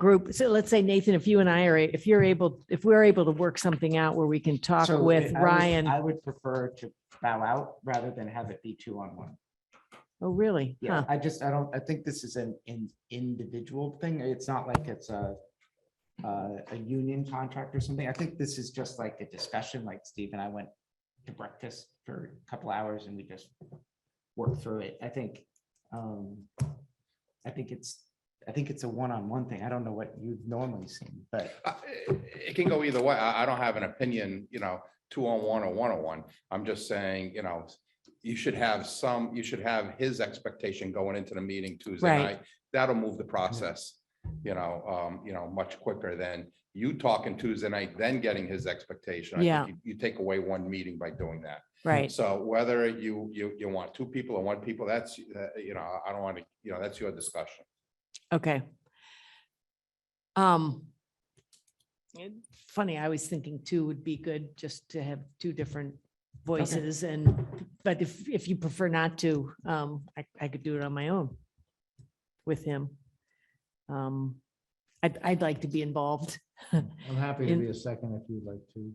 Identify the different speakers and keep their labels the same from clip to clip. Speaker 1: group, so let's say Nathan, if you and I are, a- if you're able, if we're able to work something out where we can talk
Speaker 2: So
Speaker 1: with
Speaker 2: I would-
Speaker 1: Ryan.
Speaker 2: I would prefer to bow out rather than have it be two on one.
Speaker 1: Oh, really?
Speaker 2: Yeah,
Speaker 1: Huh.
Speaker 2: I just, I don't, I think this is an, an individual thing. It's not like it's a, a, a union contract or something. I think this is just like a discussion, like Steve and I went to breakfast for a couple hours and we just worked through it. I think, um, I think it's, I think it's a one-on-one thing. I don't know what you've normally seen, but
Speaker 3: I- Uh, It can go either way. I, I don't have an opinion, you know, two on one or one on one. I'm just saying, you know, you should have some, you should have his expectation going into the meeting Tuesday
Speaker 1: Right.
Speaker 3: night. That'll move the process, you know, um, you know, much quicker than you talking Tuesday night, then getting his expectation. I think
Speaker 1: Yeah.
Speaker 3: you- You take away one meeting by doing that.
Speaker 1: Right.
Speaker 3: So whether you, you, you want two people or one people, that's, uh, you know, I don't want to, you know, that's your discussion.
Speaker 1: Okay. Um. Funny, I was thinking two would be good just to have two different voices and, but if, if you prefer not to, um, I, I could do it on my own with him. Um, I'd, I'd like to be involved,
Speaker 4: I'm happy to
Speaker 1: In-
Speaker 4: be a second if you'd like to.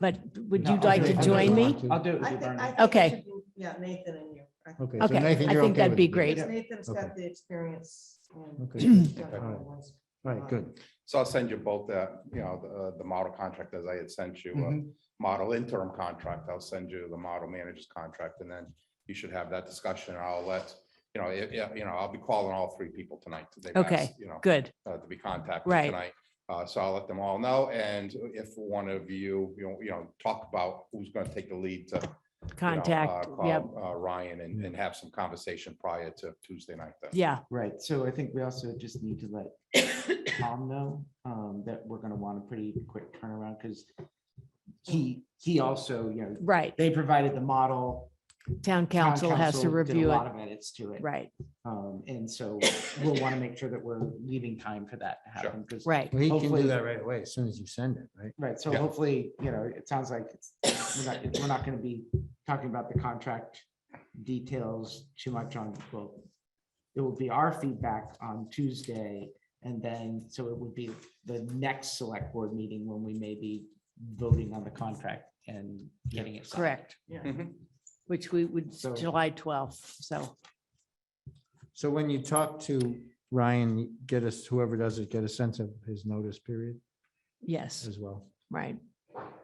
Speaker 1: but would
Speaker 2: No,
Speaker 1: you
Speaker 2: I'll
Speaker 1: like
Speaker 2: do
Speaker 1: to
Speaker 2: it. I'll do it.
Speaker 1: join me?
Speaker 2: I'll do it with
Speaker 5: I
Speaker 2: you,
Speaker 5: thi- I
Speaker 2: Bernie.
Speaker 5: think it
Speaker 1: Okay.
Speaker 5: should be- Yeah, Nathan and you. I-
Speaker 4: Okay. so
Speaker 1: Okay,
Speaker 4: Nathan,
Speaker 1: I
Speaker 4: you're
Speaker 1: think
Speaker 4: okay
Speaker 1: that'd
Speaker 4: with
Speaker 1: be
Speaker 4: it.
Speaker 1: great.
Speaker 5: because Nathan's got the experience. and-
Speaker 4: Okay.
Speaker 5: Yeah,
Speaker 4: All right.
Speaker 5: ones.
Speaker 4: All right, good.
Speaker 3: So I'll send you both the, you know, the, the model contract as I had sent you, uh, a
Speaker 2: Mhm.
Speaker 3: model interim contract. I'll send you the model manager's contract and then you should have that discussion. and I'll let, you know, yeah, you know, I'll be calling all three people tonight. They've
Speaker 1: Okay,
Speaker 3: asked, You know,
Speaker 1: Good.
Speaker 3: uh, to be contacted
Speaker 1: Right.
Speaker 3: tonight. Uh, so I'll let them all know. And if one of you, you know, you know, talk about who's going to take the lead to. you know,
Speaker 1: Contact.
Speaker 3: uh,
Speaker 1: Yep.
Speaker 3: call, Uh, Ryan and, and have some conversation prior to Tuesday night. then.
Speaker 1: Yeah.
Speaker 2: Right, so I think we also just need to let Tom know um, that we're gonna want a pretty quick turnaround, because he, he also, you know,
Speaker 1: Right.
Speaker 2: they provided the model.
Speaker 1: Town
Speaker 2: town
Speaker 1: council has to
Speaker 2: council did a
Speaker 1: review it.
Speaker 2: lot of edits to it.
Speaker 1: Right,
Speaker 2: Um, And so we'll want to make sure that we're leaving time for that to happen, because,
Speaker 1: right.
Speaker 4: Well, He can
Speaker 2: Hopefully-
Speaker 4: do that right away as soon as you send it, right?
Speaker 2: right, so
Speaker 3: Yeah.
Speaker 2: hopefully, you know, it sounds like it's, we're not, we're not gonna be talking about the contract details too much on, well, it will be our feedback on Tuesday, and then, so it would be the next select board meeting when we may be voting on the contract and getting it. signed.
Speaker 1: Correct.
Speaker 5: Yeah.
Speaker 3: Mhm.
Speaker 1: Which we would,
Speaker 2: So-
Speaker 1: July 12th, so,
Speaker 4: So when you talk to Ryan, get us, whoever does it, get a sense of his notice period
Speaker 1: yes,
Speaker 4: as well.
Speaker 1: right,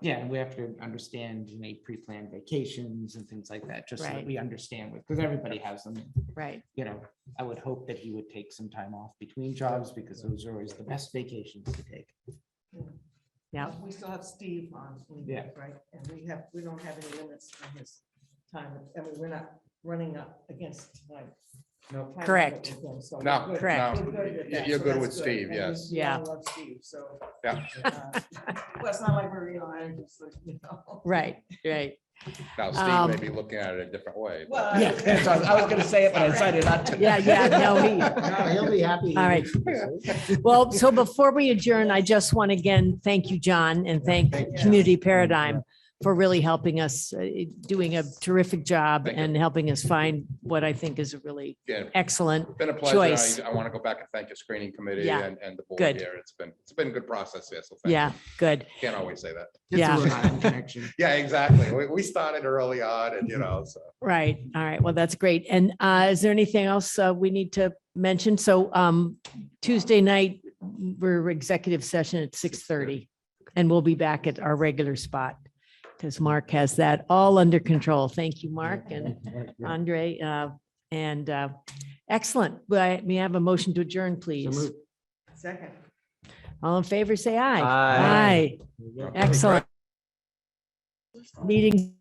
Speaker 2: Yeah, and we have to understand, you know, pre-planned vacations and things like that, just so
Speaker 1: Right.
Speaker 2: that we understand, because everybody has them.
Speaker 1: right,
Speaker 2: You know, I would hope that he would take some time off between jobs, because those are always the best vacations to take.
Speaker 1: yeah.
Speaker 5: We still have Steve on,
Speaker 2: Yeah.
Speaker 5: right? And we have, we don't have any limits on his time. I mean, we're not running up against like.
Speaker 2: Nope.
Speaker 5: time
Speaker 1: Correct.
Speaker 5: limit with him, so we're
Speaker 3: No,
Speaker 5: good.
Speaker 1: Correct.
Speaker 3: no,
Speaker 5: We're good with
Speaker 3: y-
Speaker 5: that,
Speaker 3: You're
Speaker 5: so
Speaker 3: good
Speaker 5: that's
Speaker 3: with Steve,
Speaker 5: And we-
Speaker 3: yes.
Speaker 5: we all
Speaker 1: Yeah.
Speaker 5: Love Steve, so.
Speaker 3: Yeah.
Speaker 5: uh, Well, it's not like we're, you know, I just, you know.
Speaker 1: Right, right.
Speaker 3: Now Steve
Speaker 1: Um,
Speaker 3: may be looking at it a different way. but-
Speaker 5: Well,
Speaker 2: Yeah, that's what I was- I was gonna say it, but I decided not to.
Speaker 1: Yeah, yeah, no, he-
Speaker 4: No, He'll be happy.
Speaker 1: All right. Well, so before we adjourn, I just want to again, thank you, John, and thank
Speaker 4: Thank
Speaker 5: you.
Speaker 1: Community Paradigm for really helping us, uh, doing a terrific job
Speaker 3: Thank you.
Speaker 1: and helping us find what I think is a really
Speaker 3: Yeah,
Speaker 1: excellent,
Speaker 3: Been a
Speaker 1: choice.
Speaker 3: pleasure. I, I want to go back and thank your screening committee
Speaker 1: Yeah.
Speaker 3: and, and the board
Speaker 1: Good.
Speaker 3: here. It's been, it's been a good process here. So thank you.
Speaker 1: yeah, good.
Speaker 3: Can't always say that.
Speaker 2: It's a
Speaker 1: Yeah.
Speaker 2: Rhode Island Connection.
Speaker 3: Yeah, exactly. We, we started early on and, you know, so.
Speaker 1: Right. All right. Well, that's great. And uh, is there anything else uh, we need to mention? So um, Tuesday night, we're executive session at 6:30 and we'll be back at our regular spot because Mark has that all under control. Thank you, Mark and Andre. uh, And uh, excellent. Well, May I have a motion to adjourn, please?
Speaker 5: Second.
Speaker 1: All in favor, say aye.
Speaker 4: Aye.
Speaker 1: Excellent. Meeting.